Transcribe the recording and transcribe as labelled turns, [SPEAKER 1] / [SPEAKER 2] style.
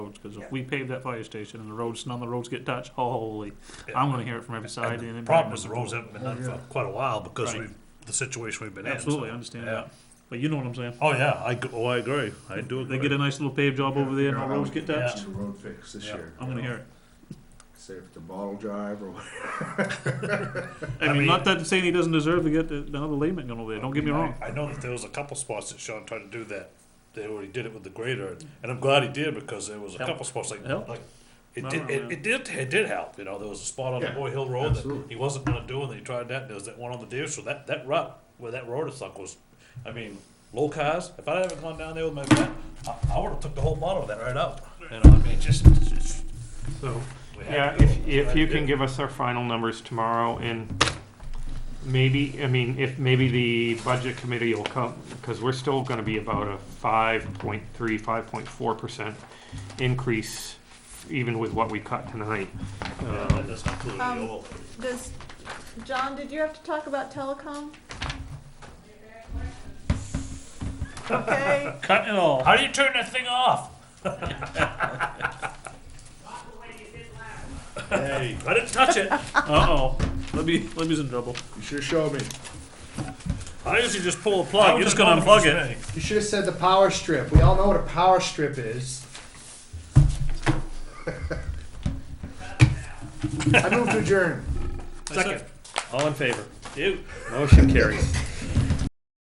[SPEAKER 1] roads, because if we pave that fire station and the roads, none of the roads get touched, holy,
[SPEAKER 2] Yeah.
[SPEAKER 1] I'm gonna hear it from every side.
[SPEAKER 2] And
[SPEAKER 1] and
[SPEAKER 2] the
[SPEAKER 1] it-
[SPEAKER 2] problem is the roads haven't been done
[SPEAKER 3] Oh,
[SPEAKER 2] for
[SPEAKER 3] yeah.
[SPEAKER 2] quite a while because
[SPEAKER 1] Right.
[SPEAKER 2] we've, the situation we've been in. so-
[SPEAKER 1] Absolutely, I understand
[SPEAKER 2] Yeah.
[SPEAKER 1] that, but you know what I'm saying.
[SPEAKER 2] Oh, yeah, I, g- oh, I agree. I do agree.
[SPEAKER 1] They get a nice little paved job over there and
[SPEAKER 3] Yeah,
[SPEAKER 1] all roads get
[SPEAKER 3] I'm
[SPEAKER 1] touched,
[SPEAKER 3] getting a Road fix this
[SPEAKER 2] Yeah.
[SPEAKER 3] year.
[SPEAKER 1] I'm gonna hear it.
[SPEAKER 3] Say if it's a bottle drive or whatever.
[SPEAKER 1] I
[SPEAKER 2] I
[SPEAKER 1] mean,
[SPEAKER 2] mean-
[SPEAKER 1] not that saying he doesn't deserve to get the- another layman going over there, don't get me
[SPEAKER 2] I-
[SPEAKER 1] wrong.
[SPEAKER 2] I know that there was a couple spots that Sean tried to do that. They already did it with the grader, and I'm glad he did because there was a
[SPEAKER 1] Help.
[SPEAKER 2] couple spots like,
[SPEAKER 1] Help.
[SPEAKER 2] like it
[SPEAKER 1] No,
[SPEAKER 2] did,
[SPEAKER 1] no, no.
[SPEAKER 2] it, it did, it did help. You know, there was a spot on the
[SPEAKER 3] Yeah,
[SPEAKER 2] Boy Hill Road that
[SPEAKER 3] absolutely.
[SPEAKER 2] he wasn't gonna do, and they tried that, and there was that one on the deer, so that, that rut, where that road is like was, I mean, low cars, if I hadn't gone down there with my vet, I, I would've took the whole bottom of that right out. You know, I mean, just, just, so. we had
[SPEAKER 4] Yeah,
[SPEAKER 2] to do
[SPEAKER 4] if,
[SPEAKER 2] it.
[SPEAKER 4] if
[SPEAKER 2] Glad
[SPEAKER 4] you
[SPEAKER 2] we
[SPEAKER 4] can
[SPEAKER 2] did.
[SPEAKER 4] give us our final numbers tomorrow and maybe, I mean, if maybe the budget committee will come, because we're still gonna be about a five point three, five point four percent increase even with what we cut tonight.
[SPEAKER 2] Yeah,
[SPEAKER 4] Um,
[SPEAKER 2] that doesn't include the
[SPEAKER 5] Um,
[SPEAKER 2] old.
[SPEAKER 5] Does, John, did you have to talk about telecom? Okay,
[SPEAKER 2] Cut it all. How do you turn that thing off? Hey, I didn't touch it.
[SPEAKER 1] Uh-oh, let me, let me's in trouble.
[SPEAKER 3] You should have showed me.
[SPEAKER 2] I usually just pull the plug. You're just gonna
[SPEAKER 1] That was
[SPEAKER 2] unplug it.
[SPEAKER 6] You should have said the power strip. We all know what a power strip is.
[SPEAKER 3] I moved to adjourn.
[SPEAKER 6] Adjourn.
[SPEAKER 2] Second.
[SPEAKER 4] All in favor?
[SPEAKER 2] Ew.
[SPEAKER 4] Motion carries.